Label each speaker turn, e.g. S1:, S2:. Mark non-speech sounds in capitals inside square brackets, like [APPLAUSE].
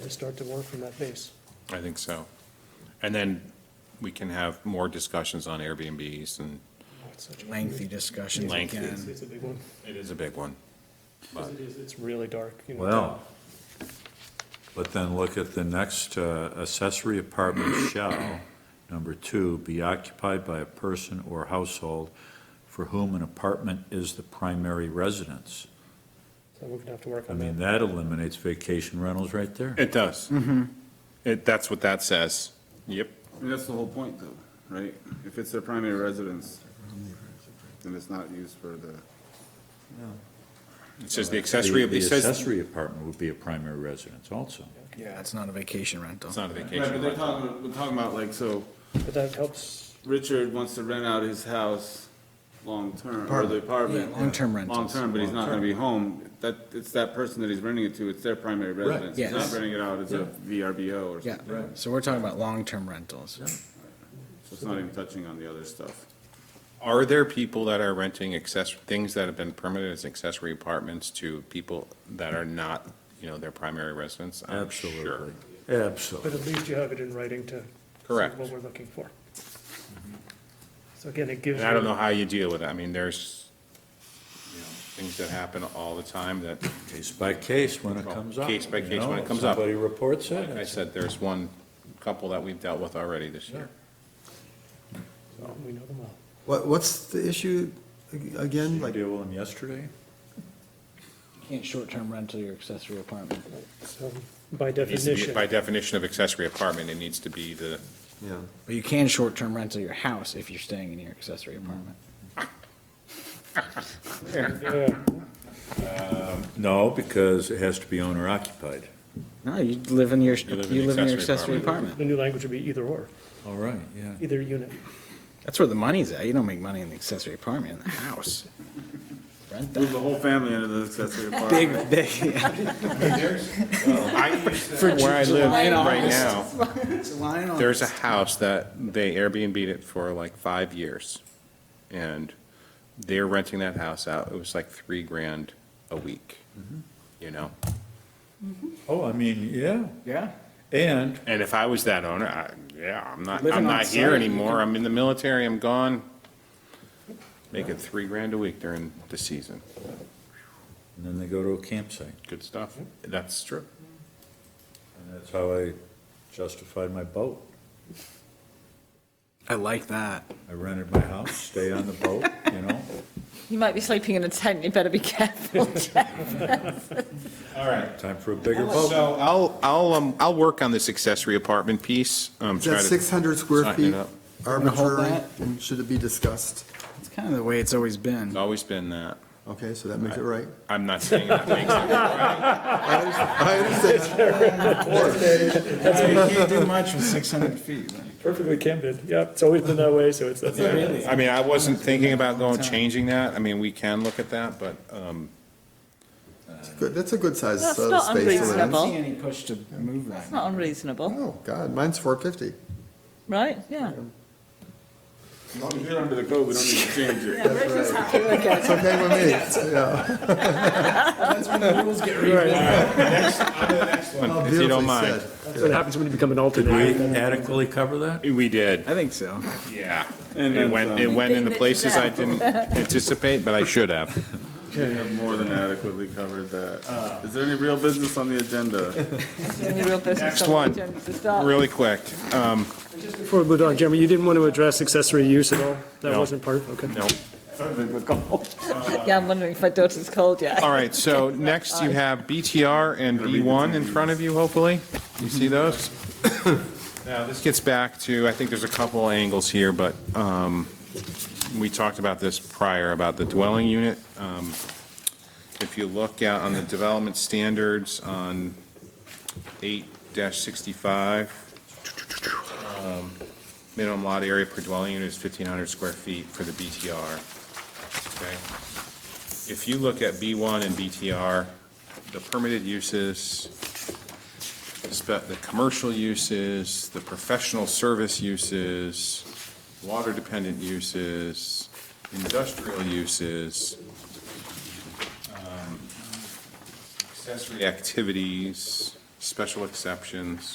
S1: and start to work from that base.
S2: I think so. And then we can have more discussions on Airbnbs, and
S1: Oh, it's such a-
S3: lengthy discussions
S2: Lengthy.
S1: It's
S3: again.
S1: it's a big one,
S2: it is a big one.
S1: 'cause it is, it's really dark, you know.
S4: Well, but then look at the next, uh, accessory apartment [COUGHS] shall, number two, be occupied by a person or household for whom an apartment is the primary residence.
S1: So we're gonna have to work
S4: I
S1: on
S4: mean,
S1: that.
S4: that eliminates vacation rentals right there.
S2: It does. Mm-hmm. It, that's what that says. Yep.
S5: I mean, That's the whole point though, right? If it's their primary residence, then it's not used for the,
S2: It says the accessory,
S4: The-
S2: it
S4: The
S2: says,
S4: accessory apartment would be a primary residence also.
S3: Yeah, it's not a vacation rental.
S2: it's not a
S5: right, but
S2: vacation
S5: they're
S2: rental.
S5: talking, we're talking about like, so
S1: But that helps,
S5: Richard wants to rent out his house long-term, or the apartment.
S3: Yeah, long-term rentals.
S5: Long-term, but he's not gonna be home. That, it's that person that he's renting it to, it's their primary residence. He's not
S3: Yes.
S5: renting it out as a VRBO or
S3: Yeah,
S5: something.
S3: so we're talking about long-term rentals.
S5: So it's not even touching on the other stuff.
S2: Are there people that are renting access, things that have been permitted as accessory apartments to people that are not, you know, their primary residence? I'm sure.
S4: Absolutely,
S1: but
S4: absolutely.
S1: at least you have it in writing to. see
S2: Correct. Mm-hmm.
S1: What we're looking for. So again, it gives.
S2: And I don't
S1: you-
S2: know how you deal with it. I mean, there's, you know, things that happen all the time that,
S4: Case by case when it comes up.
S2: Case by
S4: you
S2: case when
S4: know,
S2: it
S4: if
S2: comes up.
S4: Somebody reports it.
S2: like I said, there's one couple that we've dealt with already this year.
S1: We know them all.
S6: What, what's the issue ag-
S4: Did
S6: again?
S4: you
S6: Like,
S4: deal with them yesterday?
S3: You Can't short-term rental your accessory apartment.
S1: So by
S2: It needs to be-
S1: definition,
S2: By definition of accessory apartment, it needs to be the,
S6: yeah,
S3: But you can short-term rental your house if you're staying in your accessory apartment.
S1: yeah,
S4: No, because it has to be owner occupied.
S3: Mm-hmm. No, you live in your,
S2: You live in
S3: you
S2: the
S3: live in your
S2: accessory
S3: accessory
S1: the
S3: apartment.
S1: new language would be either or,
S4: All right, yeah.
S1: either unit.
S3: That's where the money's at. You don't make money in the accessory apartment, in the house. [LAUGHS] Rent [LAUGHS]
S5: Move
S3: that.
S5: the whole family into
S3: [LAUGHS]
S5: the accessory
S3: Big,
S5: apartment.
S3: big, yeah.
S2: I use [LAUGHS] that where I live
S3: July and
S2: right [LAUGHS]
S3: August.
S2: now.
S3: It's a line on-
S2: There's a house that they Airbnb'd it for like five years. And they're renting that house out. It was like three grand a week, you know?
S4: Oh, I mean, yeah,
S3: Yeah.
S4: and
S2: And if I was that owner, I, yeah, I'm not,
S3: Living
S2: I'm
S3: on
S2: not here
S3: site, you
S2: anymore. I'm in the military. I'm gone. Making three grand a week during the season.
S4: And then they go to a campsite.
S2: Good stuff. That's true.
S4: And that's how I justified my boat.
S3: I like that.
S4: I rented my house, stay on the boat, you know?
S7: You might be sleeping in a tent, you better be careful.
S2: All right.
S4: Time for a bigger boat.
S2: So I'll, I'll, um, I'll work on this accessory apartment piece. um,
S6: is that
S2: try to
S6: six hundred square
S2: tighten it up.
S6: feet
S3: gonna hold
S6: arbitrary?
S3: that?
S6: And should it be discussed?
S3: It's kind of the way it's always been. [LAUGHS]
S2: It's always been that.
S6: Okay, so that makes it right.
S2: I'm not saying that makes it
S6: I understand.
S3: You can't do much with 600 feet.
S1: Perfectly can be, yeah, it's always been that way, so it's, that's.
S2: Yeah. I mean, I wasn't
S6: [LAUGHS]
S2: thinking about going, changing that. I mean, we can look at that, but, um,
S6: It's good- That's a good size uh,
S7: That's
S6: space.
S7: not
S6: to live
S3: I
S6: in.
S3: don't
S7: unreasonable.
S3: see any push to move that.
S7: It's not unreasonable,
S6: Oh, God, mine's four fifty.
S7: right? Yeah.
S5: As long as you're under the code, we don't need to change it.
S6: It's okay
S2: [LAUGHS]
S6: with me, yeah.
S2: if you don't mind.
S1: That's what happens when you become an
S4: Did we
S1: alternate.
S4: adequately cover that?
S2: We did,
S3: I think so.
S2: yeah.
S5: And
S2: It
S5: then um,
S2: went, it
S5: some.
S2: went into places I didn't anticipate, but I should
S6: [LAUGHS]
S2: have.
S5: We have more than adequately covered
S2: Uh.
S5: that. Is there any real business on the
S2: [LAUGHS]
S5: agenda?
S7: Any real business
S2: Next
S7: on the
S2: one.
S7: agenda to start.
S2: Really quick. Um,
S1: Before we move on, Jeremy, you didn't want to address accessory use at all? That
S2: No.
S1: wasn't part, of- okay.
S2: no.
S7: Yeah, I'm wondering if my daughter's cold yet.
S2: All right, so next you have BTR and B1 in front of you, hopefully. You see those? Now, this gets back to, I think there's a couple angles here, but um, we talked about this prior, about the dwelling unit. Um, If you look out on the development standards on 8-65, um, minimum lot area per dwelling unit is 1,500 square feet for the BTR. Okay? if you look at B1 and BTR, the permitted uses, the spe- the commercial uses, the professional service uses, water-dependent uses, industrial uses, um, accessory activities, special exceptions,